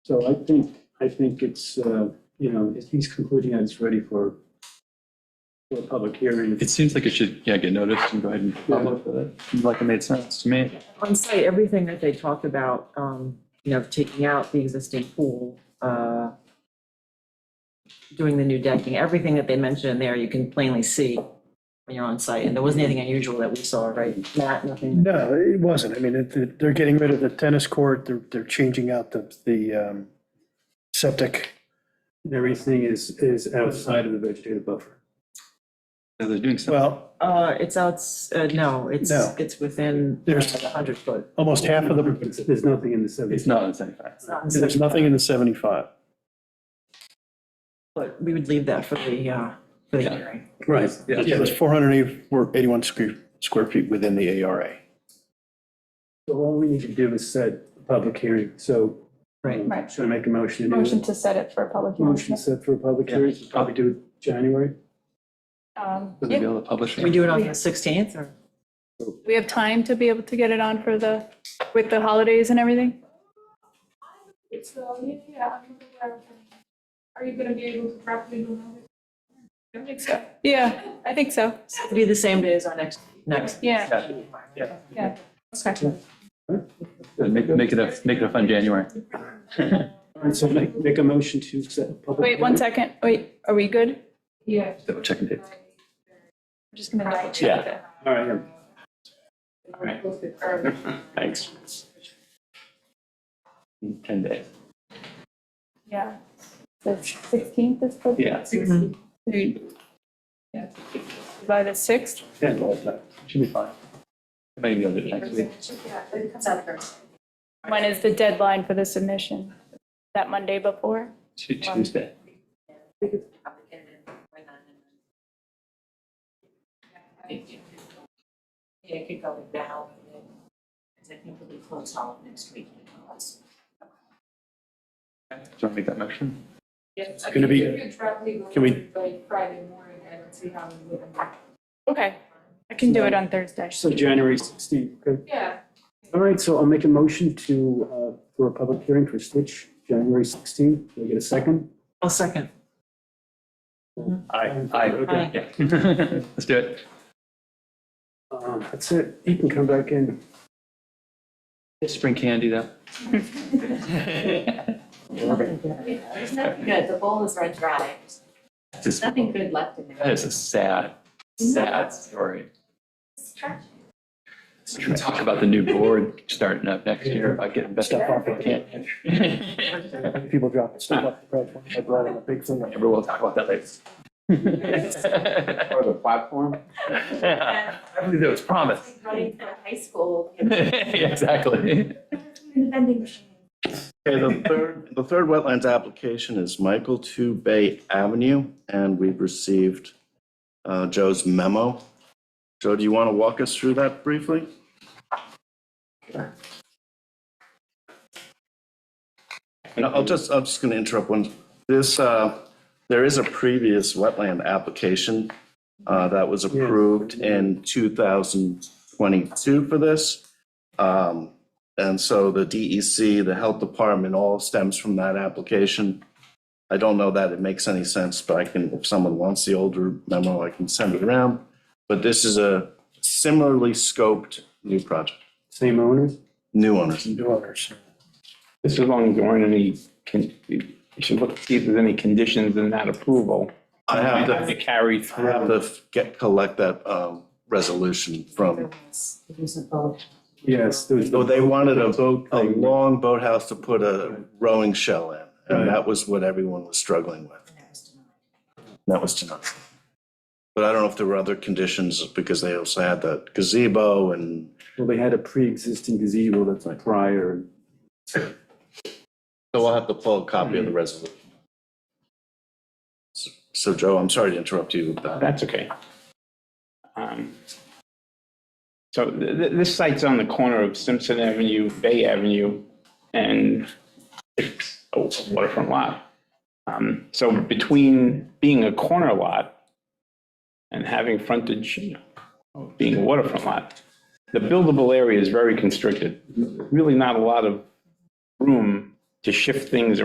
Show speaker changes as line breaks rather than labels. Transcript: So I think, I think it's, uh, you know, if he's concluding that it's ready for for a public hearing.
It seems like it should, yeah, get noticed and go ahead and publish it. Seems Like it made sense to me.
On site, everything that they talk about, um, you know, taking out the existing pool, uh, doing the new decking, everything that they mentioned in there, you can plainly see when you're on site. And there wasn't anything unusual that we saw, right? Matt, nothing?
No, it wasn't. I mean, it- it- they're getting rid of the tennis court, they're, they're changing out the, the um, septic.
Everything is, is outside of the vegetative buffer.
Yeah, They're doing something.
Well,
Uh, it's outs, uh, no, it's,
No.
it's within
There's-
a hundred foot.
almost half of the,
It's- There's nothing in the
It's
seventy.
not in seventy-five.
It's not in
there's nothing in the 75.
But we would leave that for the, uh, for the
Yeah.
hearing.
Right.
yeah.
Yeah, it's 481 square, square feet within the ARA.
So all we need to do is set a public hearing, so. um,
Right.
Right.
Should I make a motion? to do
Motion
it?
to set it for a public
Motion
hearing.
set for a public
Yeah.
hearing, probably do it January.
Um,
Would they be
yeah,
able to publish
Can we
it?
do it on the sixteenth or?
We have time to be able to get it on for the, with the holidays and everything?
uh, Are you gonna be able to properly do that?
I think so. Yeah, I think so.
It'd be the same day as our next, next.
Yeah, yeah. Okay.
Make, make it a, make it a fun January.
All right, so make, make a motion to set a public.
Wait, one second. Wait, are we good? I'm
Yeah.
Double check and date.
just gonna double check it.
All right, yeah.
Thanks. In Ten days.
Yeah. The 16th is the.
Yeah.
By the 6th?
Yeah, all right.
Should be fine. Maybe be able to do it next week.
When is the deadline for the submission? That Monday before?
Tu- Tuesday.
Yeah, it could go with now, and then, because I think it'll be closed all of next week.
Do you want to make that motion?
It's
gonna be- can we-
By Friday morning, I don't see how we would.
Okay, I can do it on Thursday.
So January sixteenth, okay?
Yeah.
All right, so I'll make a motion to, uh, for a public hearing for Stitch, January 16th. Can I get a second?
I'll second.
Aye. Aye.
Aye.
Yeah. Let's do it.
Um, That's it. You can come back in.
Spring candy though.
There's nothing good, the bowl is run dry,
Just-
there's nothing good left in
That
there.
is a sad, sad story.
It's trash.
We can Talk about the new board starting up next year, about getting better.
Stuff off the People dropping stuff off the platform. I brought in a big thing.
Remember, we'll talk about that later.
Or the platform?
I believe that was promised.
Running for high school. you know.
Yeah, Exactly.
Okay, the third, the third wetlands application is Michael Two Bay Avenue, and we've received uh, Joe's memo. Joe, do you want to walk us through that briefly? And I'll just, I'm just going to interrupt one. This, uh, there is a previous wetland application uh, that was approved in 2022 for this. Um, and so the DEC, the Health Department, all stems from that application. I don't know that it makes any sense, but I can, if someone wants the older memo, I can send it around. But this is a similarly scoped new project,
Same owners?
new owners.
New owners.
This is long as there aren't any, con- you should look, see if there's any conditions in that approval.
I have
Might
to,
Carry
I
through.
have to get, collect that, um, resolution
There
from,
was, there was a boat.
Yes, there was
oh, they wanted a,
boat
a
thing.
long boathouse to put a rowing shell in. And that was what everyone was struggling with.
and that was denied.
That was tonight. But I don't know if there were other conditions because they also had the gazebo and
Well, they had a pre-existing gazebo that's prior.
so we'll have to pull a copy of the resolution. Mm-hmm. So- So Joe, I'm sorry to interrupt you with that.
Uh, That's okay. Um, So th- th- this site's on the corner of Simpson Avenue, Bay Avenue, and it's a waterfront lot. Um, So between being a corner lot and having frontage, of being a waterfront lot, the buildable area is very constricted. Really not a lot of room to shift things